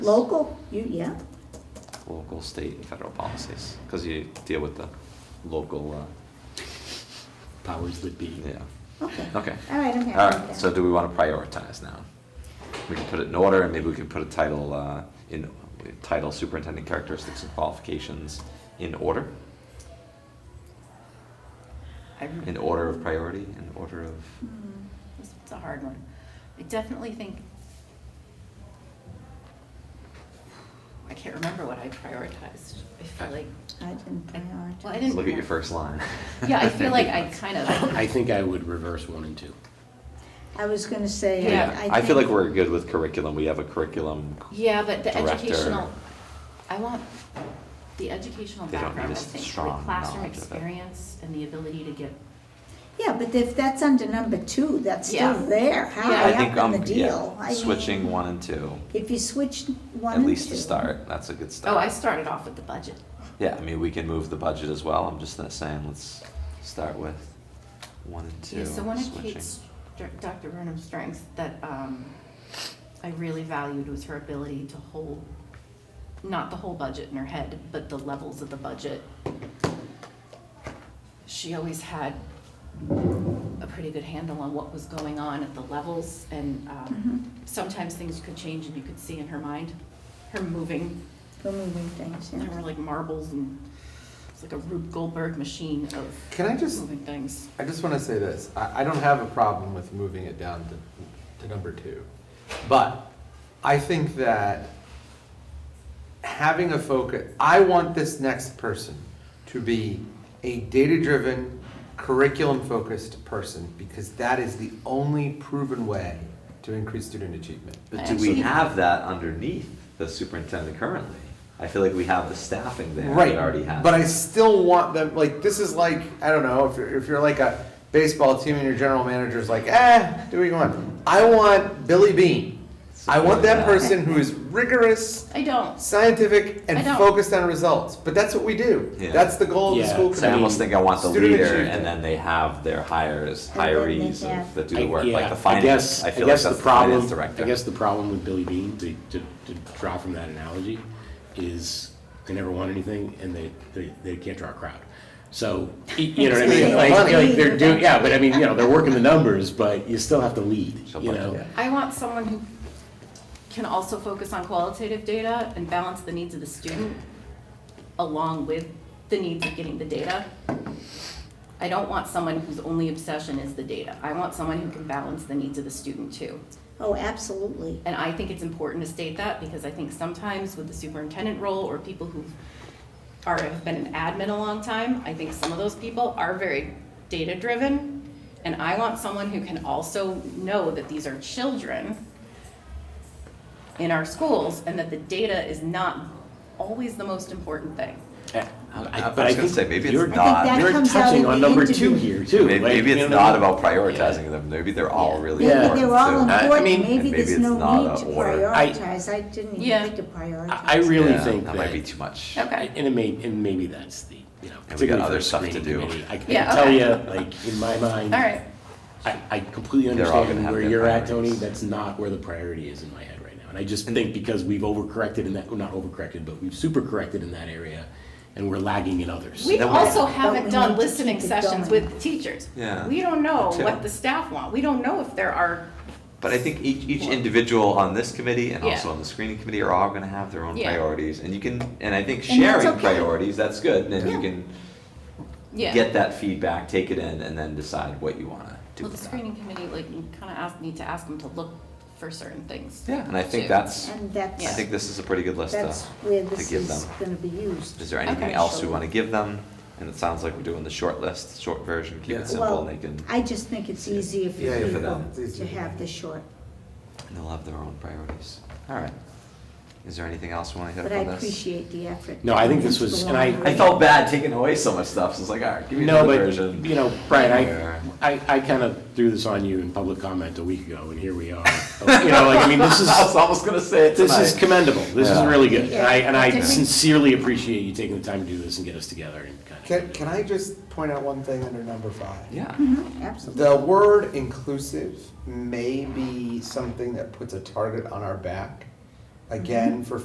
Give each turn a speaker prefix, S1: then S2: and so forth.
S1: Local, you, yeah,
S2: local, state, and federal policies, because you deal with the local, uh,
S3: powers that be.
S2: yeah.
S1: okay.
S2: Okay.
S1: All right, I'm happy with
S2: All
S1: that.
S2: right, so do we want to prioritize now? We can put it in order, and maybe we can put a title, uh, in, title superintendent characteristics and qualifications in order, in order of priority, in order of,
S4: Hmm, This one's a hard one. I definitely think, I can't remember what I prioritized. I feel like,
S1: I didn't prioritize.
S4: Well, I didn't-
S2: look at your first line.
S4: yeah, I feel like I kind of,
S3: I think I would reverse one and two.
S1: I was gonna say, I, I
S2: Yeah,
S1: think.
S2: I feel like we're good with curriculum, we have a curriculum,
S4: yeah, but the
S2: Director.
S4: educational, I want the educational
S2: They don't need
S4: background, I
S2: a s-
S4: think, for
S2: strong
S4: the classroom
S2: knowledge of it.
S4: experience and the ability to get,
S1: Yeah, but if that's under number two, that's still
S4: Yeah.
S1: there,
S4: Yeah.
S1: high
S2: I think,
S1: up in
S2: um,
S1: the deal.
S2: yeah,
S1: I
S2: switching
S1: mean,
S2: one and two,
S1: If you switch one
S2: at
S1: and
S2: least to
S1: two-
S2: start, that's a good start.
S4: oh, I started off with the budget.
S2: Yeah, I mean, we can move the budget as well, I'm just not saying, let's start with one and two,
S4: Yeah, so one of
S2: switching.
S4: Kate's, Dr. Burnham's strengths that um, I really valued was her ability to hold, not the whole budget in her head, but the levels of the budget. She always had a pretty good handle on what was going on at the levels, and um, sometimes things could change and you could see in her mind, her moving,
S1: Removing things,
S4: there were
S1: yeah.
S4: like marbles and it's like a Rube Goldberg machine of
S5: Can I just,
S4: moving things.
S5: I just want to say this. I, I don't have a problem with moving it down to, to number two. But I think that having a focus, I want this next person to be a data-driven, curriculum-focused person because that is the only proven way to increase student achievement.
S2: But do we
S4: Actually-
S2: have that underneath the superintendent currently? I feel like we have the staffing there
S5: Right.
S2: that already has.
S5: But I
S2: it.
S5: still want them, like, this is like, I don't know, if you're, if you're like a baseball team and your general manager's like, eh, do what you want. I want Billy Bean. I want that person who is rigorous,
S4: I don't.
S5: scientific,
S4: I
S5: and
S4: don't.
S5: focused on results. But that's what we do.
S2: Yeah.
S5: That's the goal of the
S3: Yeah.
S5: school
S2: So I almost
S5: committee.
S2: think I want the
S5: Student
S2: leader
S5: achievement.
S2: and then they have their hires,
S1: And then they
S2: hirees
S1: have-
S2: of- that do the
S3: I-
S2: work,
S3: yeah,
S2: like the
S3: I guess-
S2: finance, I
S3: I
S2: feel like
S3: guess the
S2: that's the finance
S3: problem-
S2: director.
S3: I guess the problem with Billy Bean, to, to, to draw from that analogy, is they never won anything and they, they, they can't draw a crowd. So, y- you know what I mean?
S5: Yeah,
S3: Like,
S5: money.
S3: like they're doing, yeah, but I mean, you know, they're working the numbers, but you still have to lead,
S2: Somebody,
S3: you know?
S2: yeah.
S4: I want someone who can also focus on qualitative data and balance the needs of the student along with the needs of getting the data. I don't want someone whose only obsession is the data. I want someone who can balance the needs of the student too.
S1: Oh, absolutely.
S4: And I think it's important to state that because I think sometimes with the superintendent role or people who are, have been an admin a long time, I think some of those people are very data-driven. And I want someone who can also know that these are children in our schools and that the data is not always the most important thing.
S3: I-
S2: I was
S3: Uh, but
S2: gonna
S3: think
S2: say, maybe it's
S3: you're-
S2: not- I think that
S3: You're
S1: comes out
S3: touching
S1: in
S3: on
S1: the
S3: number two
S1: interview.
S3: here too.
S2: Maybe,
S3: like,
S2: maybe
S3: you
S2: it's
S3: know,
S2: not about prioritizing them, maybe they're all
S4: Yeah.
S2: really
S1: Maybe
S2: important
S1: they're all
S2: too.
S3: I- I mean-
S1: important, maybe
S2: And
S1: there's
S2: maybe
S1: no
S2: it's not
S1: need to
S2: a order.
S3: I-
S1: prioritize, I didn't
S4: Yeah.
S1: even think to prioritize.
S3: I I really
S2: Yeah,
S3: think that.
S2: That might be too much.
S4: Okay.
S3: And it may, and maybe that's the, you know,
S2: And we got
S3: particularly for
S2: other
S3: a
S2: stuff to
S3: screening
S2: do.
S3: committee. I I
S4: Yeah,
S3: can tell
S4: okay.
S3: you, like, in my mind.
S1: Mm-hmm.
S4: All right,
S3: I, I completely
S2: They're all gonna
S3: understand
S2: have
S3: where
S2: their
S3: you're at, Tony.
S2: priorities.
S3: That's not where the priority is in my head right now. And I just think because we've overcorrected in that, well, not overcorrected, but we've supercorrected in that area and we're lagging in others.
S4: we
S2: Then we-
S4: also
S1: But
S4: haven't
S1: we
S4: done
S1: need to
S4: listening
S1: keep it
S4: sessions
S1: going.
S4: with the teachers.
S2: Yeah.
S4: We don't know
S2: Too.
S4: what the staff want, we don't know if there are
S2: But I think each, each individual on this committee and
S4: Yeah.
S2: also on the screening committee are all gonna have their own
S4: Yeah.
S2: priorities, and you can, and I think
S1: And that's
S2: sharing
S1: okay.
S2: priorities, that's good, and
S1: Yeah.
S2: you can
S4: Yeah.
S2: get that feedback, take it in, and then decide what you wanna do
S4: Well, the
S2: with that.
S4: screening committee, like, you kind of ask, need to ask them to look for certain things.
S2: Yeah, and I think
S4: too.
S2: that's,
S1: And
S2: I
S1: that's,
S2: think this is a pretty good list
S1: that's
S2: to,
S1: where
S2: to
S1: this
S2: give
S1: is
S2: them.
S1: gonna be used.
S2: Is there anything
S4: Okay.
S2: else we wanna give them? And it sounds like we're doing the short list, short version, keep
S5: Yeah.
S2: it simple, and
S1: Well,
S2: they can,
S1: I just think it's easier for
S5: Yeah, yeah,
S2: for
S1: people
S2: them.
S5: It's
S1: to
S5: easier.
S1: have the short,
S2: and they'll have their own priorities. Alright. Is there anything else we wanna hit
S1: but
S2: up
S1: I
S2: on this?
S1: appreciate the effort.
S3: No, I think this was- and I-
S2: I felt bad taking away so much stuff, so it's like, alright, give me
S3: No,
S2: another
S3: but,
S2: version.
S3: you know, Brian,
S2: Yeah.
S3: I, I, I kind of threw this on you in public comment a week ago and here we are. You know, like, I mean, this is,
S2: I was almost gonna say it
S3: this is
S2: tonight.
S3: commendable. This is
S2: Yeah.
S3: really good. And I, and I
S4: Yeah.
S3: sincerely appreciate you taking the time to do this and get us together and kind of.
S5: Can, can I just point out one thing under number five?
S2: Yeah.
S3: Mm-hmm.
S1: Mhm, Absolutely.
S5: The word inclusive may be something that puts a target on our back
S4: Mm-hmm.
S5: again for